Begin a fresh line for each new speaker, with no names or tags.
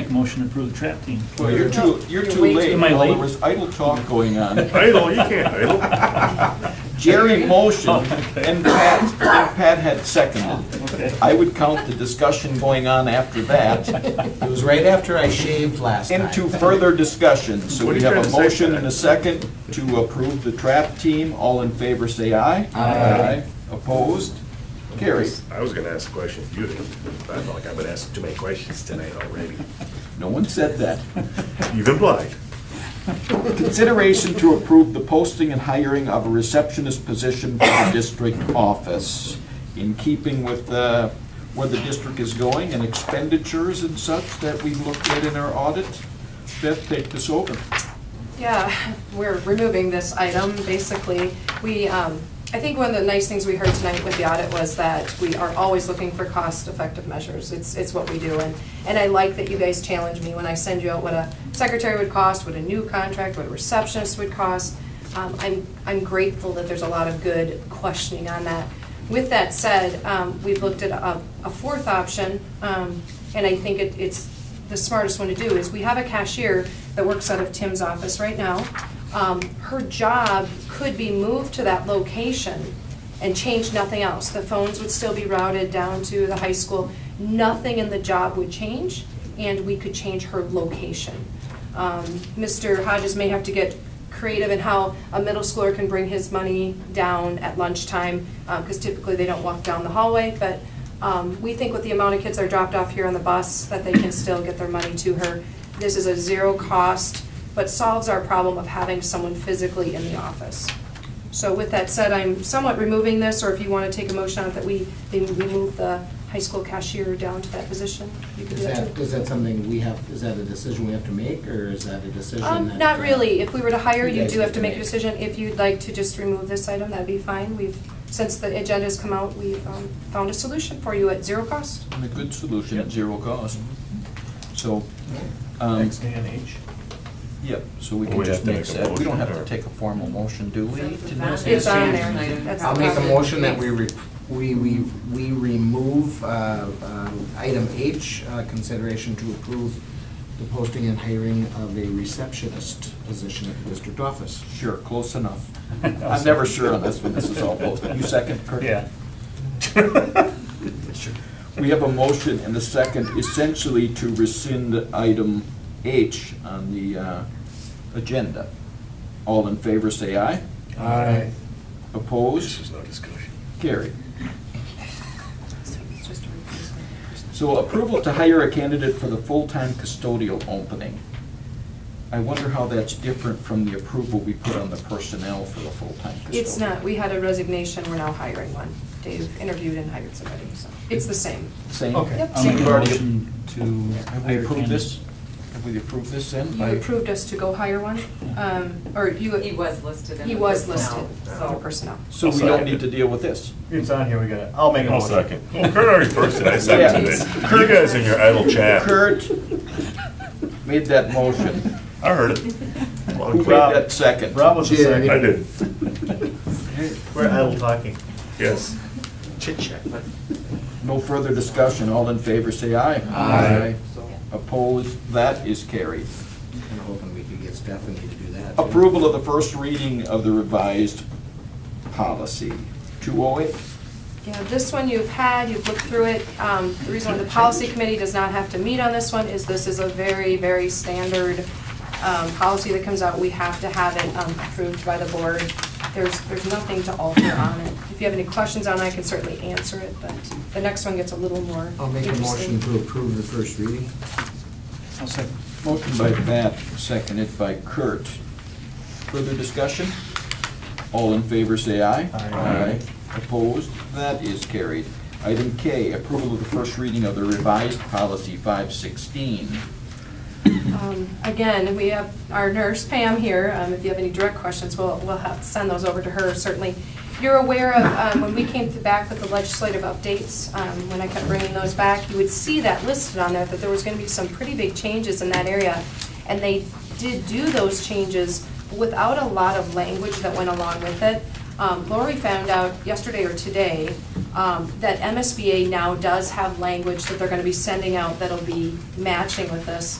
Make a motion to approve the trap team.
Well, you're too, you're
You're
too
way
late.
too- Am I
Well, There
late?
was idle
Mm.
talk going on.
Idle, you can't idle.
Jerry
Oh,
motioned, and Pat, and Pat had seconded.
Okay.
I would count the discussion going on after that
It was right after I shaved last time.
into further discussion. So
What are
we
you
have
trying
a
to say,
motion
Pat?
and a second to approve the trap team. All in favor, say aye.
Aye.
Opposed? Carried.
I was gonna ask a question, you didn't. I felt like I've been asked too many questions tonight already.
No one said that.
You've implied.
Consideration to approve the posting and hiring of a receptionist position for the district office in keeping with uh, where the district is going and expenditures and such that we looked at in our audit. Beth, take this over.
Yeah, we're removing this item, basically. We, um, I think one of the nice things we heard tonight with the audit was that we are always looking for cost-effective measures. It's, it's what we do, and, and I like that you guys challenge me when I send you out what a secretary would cost, what a new contract, what a receptionist would cost. Um, I'm, I'm grateful that there's a lot of good questioning on that. With that said, um, we've looked at a, a fourth option, um, and I think it, it's the smartest one to do is we have a cashier that works out of Tim's office right now. Um, Her job could be moved to that location and change nothing else. The phones would still be routed down to the high school. Nothing in the job would change, and we could change her location. Um, Mr. Hodges may have to get creative in how a middle schooler can bring his money down at lunchtime, because typically they don't walk down the hallway, but um, we think with the amount of kids that are dropped off here on the bus, that they can still get their money to her. This is a zero cost, but solves our problem of having someone physically in the office. So with that said, I'm somewhat removing this, or if you want to take a motion on it, that we, they remove the high school cashier down to that position, you can do
Is
that too.
that, is that something we have, is that a decision we have to make, or is that a decision
Um,
that- uh,
not really. If we were to hire,
You
you
guys
do have to
can
make a
make.
decision. If you'd like to just remove this item, that'd be fine. We've, since the agenda's come out, we've, um, found a solution for you at zero cost.
And a good solution at zero cost. So, um,
Next day and age.
yep, so we
Well,
can
we
just
have to
make
make a
that. We don't have to
motion, or-
take a formal motion, do we? to do
It's
It's
this?
on
an
there.
action
That's
I'll make a
the-
motion that we, re- we, we we remove uh, um, item H, uh, consideration to approve the posting and hiring of a receptionist position at the district office.
Sure, close enough. I'm never sure on this when this is all posted. You second, Kurt?
Yeah.
We have a motion and a second essentially to rescind item H on the uh, agenda. All in favor, say aye.
Aye.
This
Opposed?
is no discussion.
Carried.
It's just a replacement.
So approval to hire a candidate for the full-time custodial opening. I wonder how that's different from the approval we put on the personnel for the full-time custodial.
It's not. We had a resignation. We're now hiring one. They've interviewed and hired somebody, so it's the same.
Same?
Okay.
Yep.
I'll make a
We've already-
motion to
Have we
hire
approved this?
candidates.
Have we approved this then?
You
by-
approved us to go hire one, um, or you.
He was listed in
He
the
was listed
personnel,
under
so-
personnel.
So we don't need to deal with this?
It's on here, we got it. I'll make a
I'll
motion.
second. Well, Oh, Kurt already first, and I seconded it. You guys in your idle chat.
Kurt made that motion.
I heard it. Loud
Who
and
made
clear.
that second?
Rob was the
Jerry.
I
second.
did,
We're idle talking.
yes.
No further discussion, all in favor, say aye.
Aye.
Opposed, that is carried.
I'm hoping we could get Stephanie to do that. too.
Approval of the first reading of the revised policy, 208.
Yeah, this one you've had, you've looked through it. Um, The reason why the policy committee does not have to meet on this one is this is a very, very standard um, policy that comes out. We have to have it um, approved by the board. There's, there's nothing to alter on it. If you have any questions on it, I can certainly answer it, but the next one gets a little more
I'll make a
interesting.
motion to approve the first reading.
I'll second.
Motion by Bat, seconded by Kurt. Further discussion? All in favor, say aye.
Aye.
Opposed? That is carried. Item K, approval of the first reading of the revised policy 516.
Um, Again, we have our nurse Pam here, Um, if you have any direct questions, we'll, we'll have to send those over to her, certainly. You're aware of, um, when we came to- back with the legislative updates, um, when I kept bringing those back, you would see that listed on there, that there was going to be some pretty big changes in that area. And they did do those changes without a lot of language that went along with it. Um, Lori found out yesterday or today um, that MSBA now does have language that they're going to be sending out that'll be matching with this.